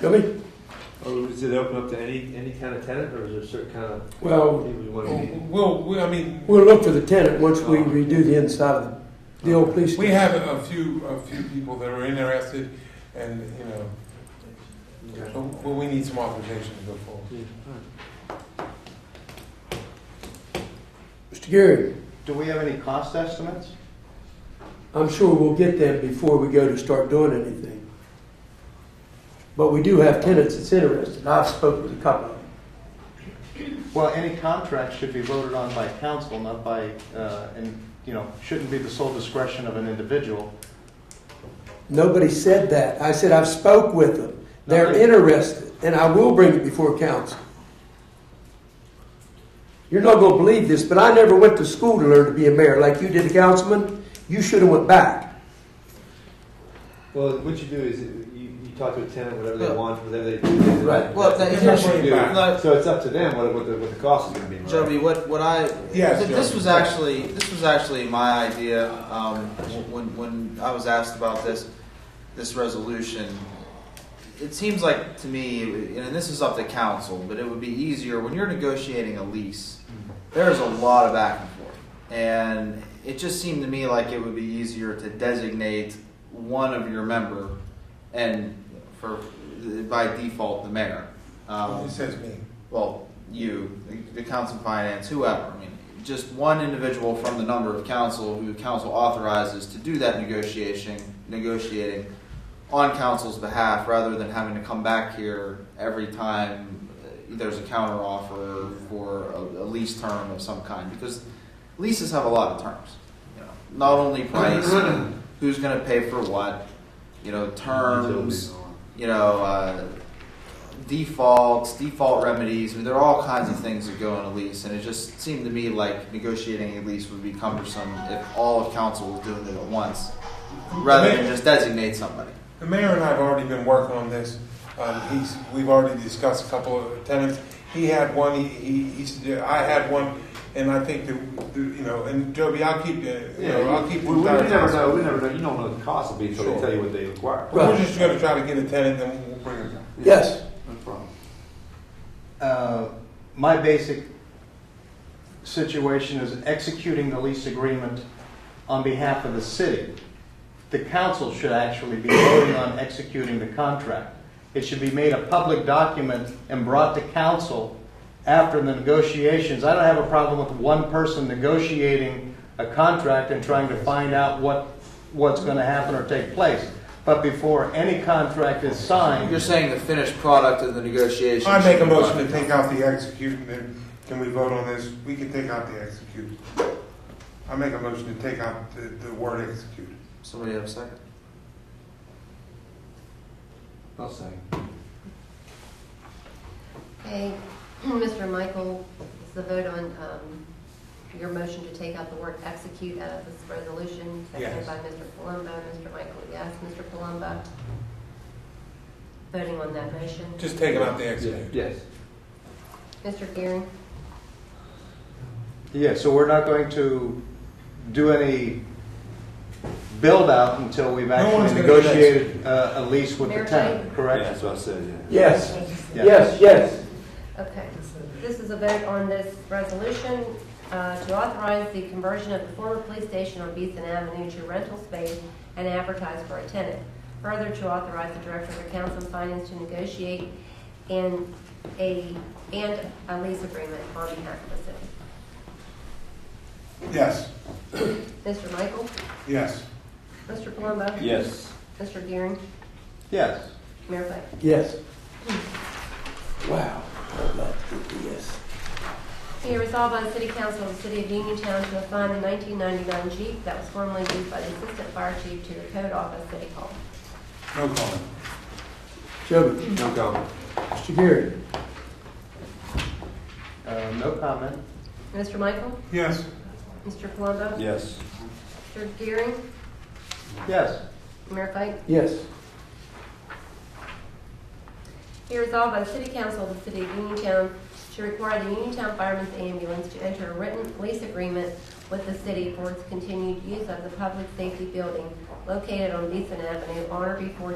Gubby? Or is it open up to any, any kind of tenant, or is there certain kind of Well, people you want to meet? Well, we, I mean, we'll look for the tenant once we redo the inside of the, the old police we station. have a few, a few people that are interested, and, you know, Okay. but but we need some authorization to go forward. Yeah, all right. Mr. Gary, Do we have any cost estimates? I'm sure we'll get them before we go to start doing anything. But we do have tenants that's interested. I've spoken with a couple of them. Well, any contract should be voted on by council, not by, uh, and, you know, shouldn't be the sole discretion of an individual. Nobody said that. I said I've spoke with them. They're Nobody- interested, and I will bring it before council. You're not going to believe this, but I never went to school to learn to be a mayor like you did, a councilman. You should have went back. Well, what you do is you, you talk to a tenant, whatever Yeah. they want, whatever they do. then Right. Well, that's- that- that's here's- what you do. no. So it's up to them what, what the, what the cost is gonna be. right? Jeremy, what what I Yes, th- this Jeremy. was actually this was actually my idea um, wh- when when I was asked about this this resolution. It seems like to me, and this is up to council, but it would be easier when you're negotiating a lease. There's a lot of back and forth, and it just seemed to me like it would be easier to designate one of your member, and for by default the mayor. Um, It says me. well, you, the- the council finance, whoever, I mean, just one individual from the number of council who council authorizes to do that negotiation, negotiating on council's behalf rather than having to come back here every time uh, there's a counter offer for a, a lease term of some kind, because leases have a lot of terms. you know, Not only price, who's gonna pay for what, you know, terms, you know, uh, defaults, default remedies. I mean, there are all kinds of things that go in a lease, and it just seemed to me like negotiating a lease would be cumbersome if all of council was doing it at once, rather than just designate somebody. The mayor and I have already been working on this. Um, he's, we've already discussed a couple of tenants. He had one, he, he, he suggested, I had one, and I think that, the- you know, and Joby, I'll keep, uh, you know, I'll keep. We, we entire never council. know, we never know, you don't know what the cost will be until they Sure. tell you what they require. We're just gonna try to get a tenant, then we'll bring it down. Yes. No problem. Uh, My basic situation is executing the lease agreement on behalf of the city. The council should actually be voting on executing the contract. It should be made a public document and brought to council after the negotiations. I don't have a problem with one person negotiating a contract and trying to find out what, what's going to happen or take place. But before any contract is signed, You're saying the finished product of the negotiation. I make a should be motion to binding. take out the execute, and then, can we vote on this? We can take out the execute. I make a motion to take out the, the word execute. Somebody have a second? I'll say. Okay, Mr. Michael, is the vote on um, your motion to take out the word execute out of this resolution? Seconded Yes. by Mr. Palumbo, Mr. Michael, yes, Mr. Palumbo. Voting on that motion, Just taking out the execute. Yes. Mr. Gearing, Yeah, so we're not going to do any build-out until we've one's actually gonna do that. negotiated uh, a lease with the Mayor tenant, Yeah, correct? That's what I said, yeah. Yes. Yeah. Yes, yes. okay. This is a vote on this resolution uh, to authorize the conversion of the former police station on Beeson Avenue to rental space and advertise for a tenant. Further, to authorize the Director of Accounts and Finance to negotiate and a, and a lease agreement on behalf of the Yes, city. Mr. Michael? yes. Mr. Palumbo? Yes. Mr. Gearing? Yes. Mayor Pike? Yes. Wow. I'd love to do this. Be it resolved by the City Council of the City of Uniontown to assign the 1999 Jeep that was formerly used by the Assistant Fire Chief to the Code Office City Hall. No comment. Joby, No comment. Mr. Gary, Uh, No comment? Mr. Michael? Yes. Mr. Palumbo? Yes. Mr. Gearing? Yes. Mayor Pike? yes. Be resolved by the City Council of the City of Uniontown to require the Uniontown Fireman's Ambulance to enter a written lease agreement with the city for its continued use of the public safety building located on Beeson Avenue on or before